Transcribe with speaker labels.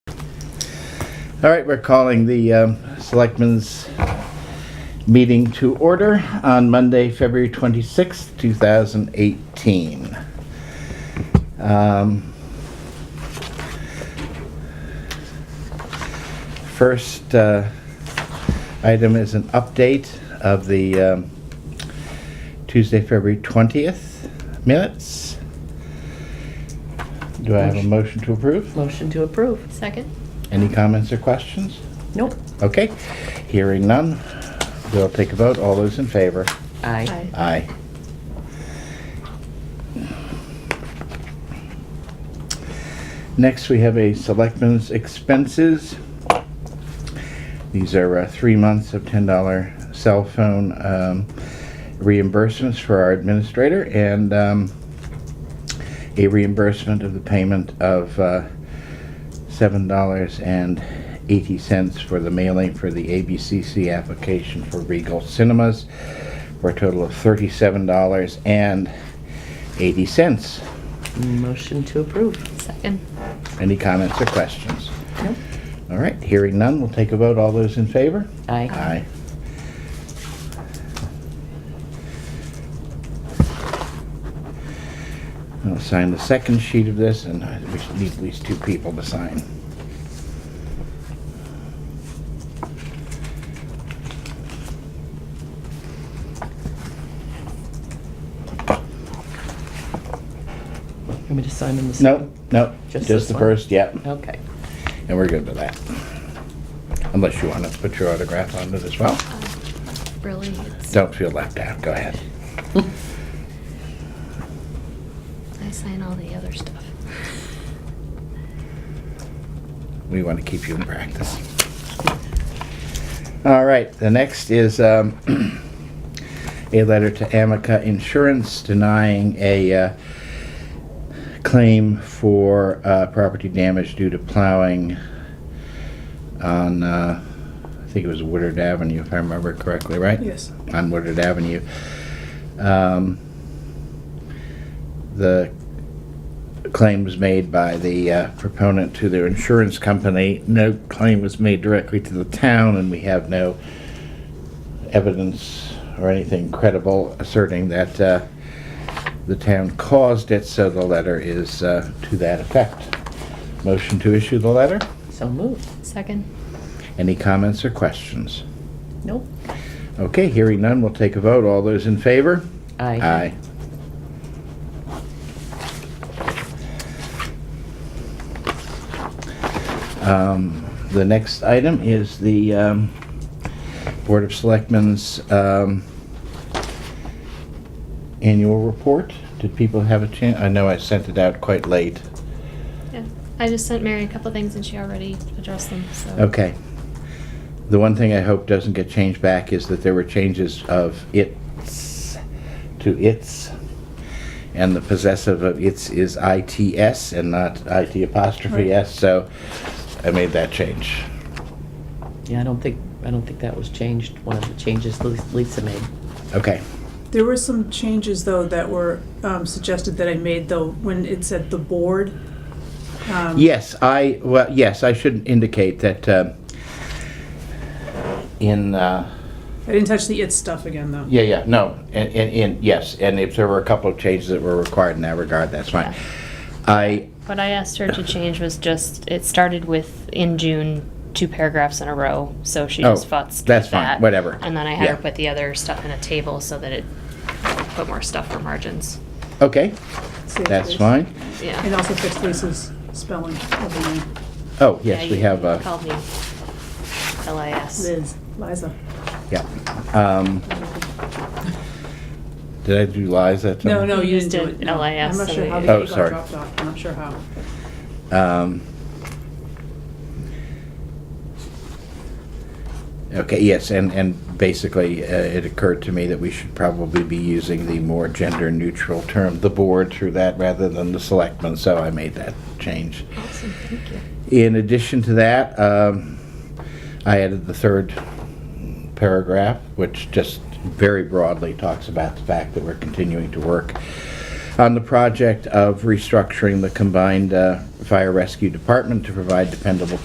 Speaker 1: All right, we're calling the um, Selectmen's meeting to order on Monday, February 26th, 2018. Um, First uh, item is an update of the um, Tuesday, February 20th minutes. Do I have a motion to approve?
Speaker 2: Motion to approve.
Speaker 3: Second?
Speaker 1: Any comments or questions?
Speaker 2: Nope.
Speaker 1: Okay, hearing none, we'll take a vote. All those in favor?
Speaker 2: Aye.
Speaker 1: Aye. Next, we have a selectmen's expenses. These are uh, three months of $10 cell phone um, reimbursements for our administrator and um, a reimbursement of the payment of uh, $7.80 for the mailing for the ABCC application for Regal Cinemas for a total of $37.80.
Speaker 2: Motion to approve.
Speaker 3: Second.
Speaker 1: Any comments or questions?
Speaker 2: Nope.
Speaker 1: All right, hearing none, we'll take a vote. All those in favor?
Speaker 2: Aye.
Speaker 1: Aye. I'll sign the second sheet of this, and I- we should need at least two people to sign.
Speaker 2: Want me to sign in the
Speaker 1: No,
Speaker 2: second?
Speaker 1: no, just
Speaker 2: Just this
Speaker 1: the
Speaker 2: one?
Speaker 1: first, yep,
Speaker 2: Okay.
Speaker 1: and we're good with that. Unless you want to put your autograph on it as well.
Speaker 3: Really? it's-
Speaker 1: Don't feel left out, go ahead.
Speaker 3: I sign all the other stuff.
Speaker 1: We want to keep you in practice. All right, the next is um, a letter to Amica Insurance denying a uh, claim for uh, property damage due to plowing on, uh, I think it was Woodard Avenue, if I remember correctly, right?
Speaker 4: Yes.
Speaker 1: on Woodard Avenue. Um, The claim was made by the uh, proponent to their insurance company. No claim was made directly to the town, and we have no evidence or anything credible asserting that uh, the town caused it, so the letter is uh, to that effect. Motion to issue the letter?
Speaker 2: So moved.
Speaker 3: Second?
Speaker 1: Any comments or questions?
Speaker 2: Nope.
Speaker 1: Okay, hearing none, we'll take a vote. All those in favor?
Speaker 2: Aye.
Speaker 1: Um, The next item is the um, Board of Selectmen's um, annual report. Did people have a chance? I know I sent it out quite late.
Speaker 3: Yeah. I just sent Mary a couple things and she already addressed them, so.
Speaker 1: Okay. The one thing I hope doesn't get changed back is that there were changes of its to its, and the possessive of its is its and not it apostrophe s, so I made that change.
Speaker 2: Yeah, I don't think, I don't think that was changed, one of the changes Lis- Lisa made.
Speaker 1: Okay,
Speaker 4: There were some changes, though, that were um, suggested that I made, though, when it said the board. um,
Speaker 1: yes, I, well, yes, I should indicate that um, in, uh,
Speaker 4: I didn't touch the it stuff again, though.
Speaker 1: Yeah, yeah, no, and, and, and, yes, and if there were a couple of changes that were required in that regard, that's fine. I,
Speaker 3: What I asked her to change was just, it started with in June, two paragraphs in a row, so she
Speaker 1: Oh,
Speaker 3: just futzed
Speaker 1: that's
Speaker 3: with
Speaker 1: fine,
Speaker 3: that.
Speaker 1: whatever.
Speaker 3: And then I had her
Speaker 1: Yeah.
Speaker 3: put the other stuff in a table so that it put more stuff for margins.
Speaker 1: okay,
Speaker 4: Save
Speaker 1: that's
Speaker 4: this.
Speaker 1: fine.
Speaker 4: And
Speaker 3: Yeah.
Speaker 4: also fixed Lisa's spelling of the name.
Speaker 1: Oh,
Speaker 3: Yeah,
Speaker 1: yes, we
Speaker 3: you-
Speaker 1: have,
Speaker 3: you
Speaker 1: uh,
Speaker 3: Called me LIS.
Speaker 4: Liz, Liza.
Speaker 1: yeah. Um, Did I do lies that
Speaker 4: No,
Speaker 1: time?
Speaker 3: You
Speaker 4: no, you didn't
Speaker 3: just
Speaker 4: do
Speaker 3: did
Speaker 4: it. no.
Speaker 3: LIS
Speaker 4: I'm not sure how
Speaker 3: and
Speaker 4: the
Speaker 1: Oh,
Speaker 4: E
Speaker 1: sorry.
Speaker 4: got dropped off. I'm not sure how.
Speaker 1: Um, Okay, yes, and, and basically, uh, it occurred to me that we should probably be using the more gender-neutral term, the board, through that rather than the selectmen, so I made that change.
Speaker 3: Awesome, thank you.
Speaker 1: In addition to that, um, I added the third paragraph, which just very broadly talks about the fact that we're continuing to work on the project of restructuring the combined uh, fire rescue department to provide dependable